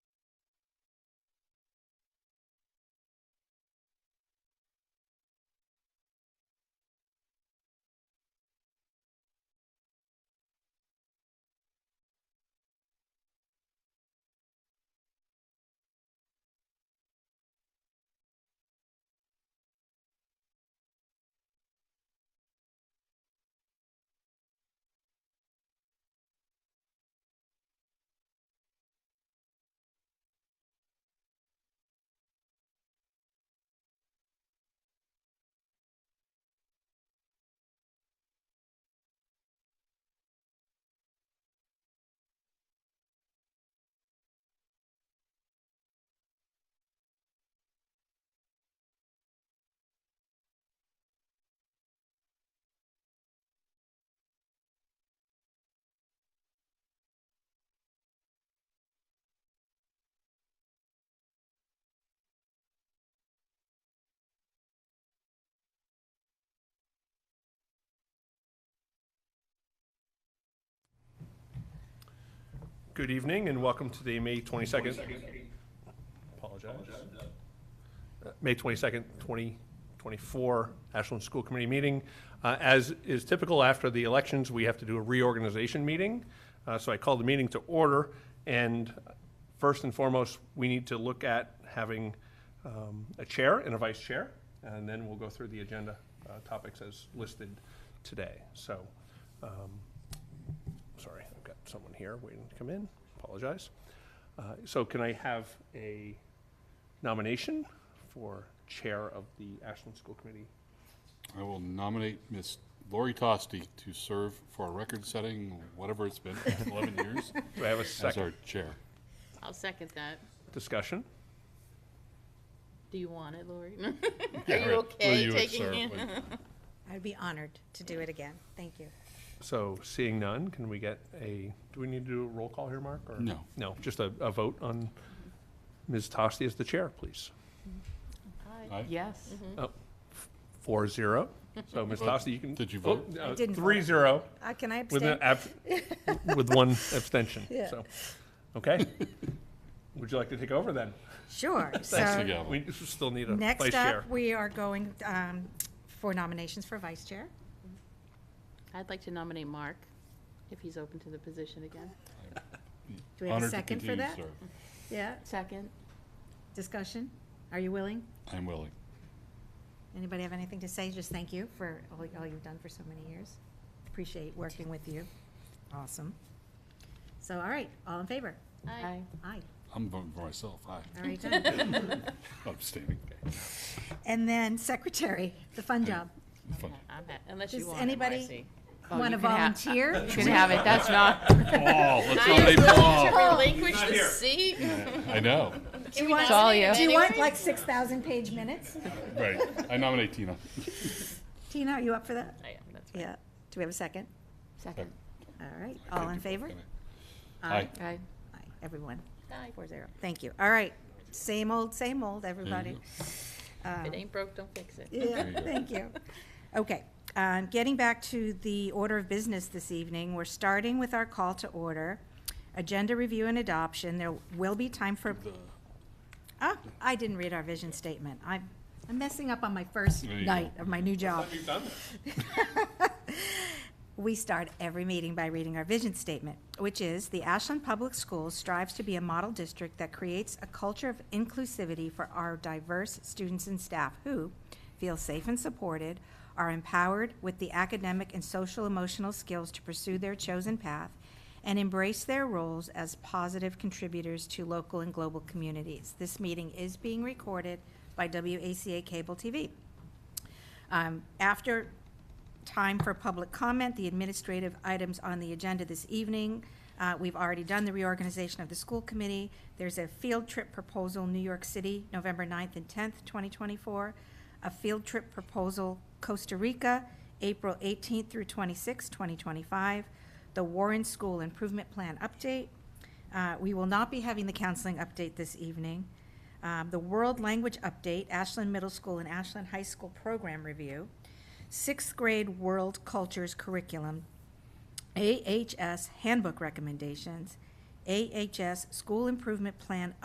Good evening and welcome to the May 22nd. Apologize. Uh, May 22nd, 2024 Ashland School Committee meeting. Uh, As is typical after the elections, we have to do a reorganization meeting. Uh, So I call the meeting to order. And first and foremost, we need to look at having um, a chair and a vice chair. And then we'll go through the agenda uh, topics as listed today. So um, Sorry, I've got someone here waiting to come in. Apologize. Uh, So can I have a nomination for Chair of the Ashland School Committee? I will nominate Miss Lori Tosti to serve for a record-setting, whatever it's been, 11 years, Do I have a as our second chair. I'll second that. discussion? Do you want it, Lori? Uh, Yeah, Are you right. Will okay you taking serve, it? please? I'd be honored to do it again. Thank you. So seeing none, can we get a, do we need to do a roll call here, Mark? or- No. No, just a, a vote on Ms. Tosti as the Chair, please. Oh, Aye. Yes. Mm-hmm. Mm-hmm. Four zero. So Ms. You vote- Tosti, you can. did you oh, vote? uh, I didn't vote. Three zero Uh, can I with an abstain? ab- with one abstention, Yeah. so. Okay. Would you like to take over then? Sure. Thanks So, again. We still need a vice next chair. up, we are going, um, for nominations for vice chair. I'd like to nominate Mark, if he's open to the position again. Do we have a Honored to second for continue to that? serve. Yeah, Second? discussion? Are you willing? I'm willing. Anybody have anything to say? Just thank you for all, all you've done for so many years. Appreciate working with you. Awesome. So, all right, all in favor? Aye. Aye. I'm voting for myself, aye. All right, done. I'm standing. And then secretary, the fun job. Fun. I'm ha- Unless you Does want it, anybody Marcy. Oh, Want to you can have- volunteer? You can have it, that's not. Paul, let's I nominate am willing Paul. to relinquish Not the here. seat. I know, Do you want- It's all you. Do you want like six thousand page minutes? right. I nominate Tina. Tina, are you up for that? I am, that's right. Yeah. Do we have a second? Second. All right, all in favor? Aye. Aye. Aye, everyone, Aye. four zero. Thank you. All right, same old, same old, Mm-hmm. everybody. If Um, it ain't broke, don't fix it. Yeah, you go. thank you. Okay, um, getting back to the order of business this evening, we're starting with our call to order. Agenda review and adoption, there will be time for, ah, I didn't read our vision statement. I'm, I'm messing up on my first There you go. night of my new job. We've done this. We start every meeting by reading our vision statement, which is, "The Ashland Public Schools strives to be a model district that creates a culture of inclusivity for our diverse students and staff who feel safe and supported, are empowered with the academic and social emotional skills to pursue their chosen path, and embrace their roles as positive contributors to local and global communities." This meeting is being recorded by WACA Cable TV. Um, After time for public comment, the administrative items on the agenda this evening. Uh, We've already done the reorganization of the school committee. There's a field trip proposal, New York City, November 9th and 10th, 2024. A field trip proposal, Costa Rica, April 18th through 26th, 2025. The Warren School Improvement Plan update. Uh, We will not be having the counseling update this evening. Um, The World Language Update, Ashland Middle School and Ashland High School Program Review sixth grade world cultures curriculum, AHS handbook recommendations, AHS school improvement plan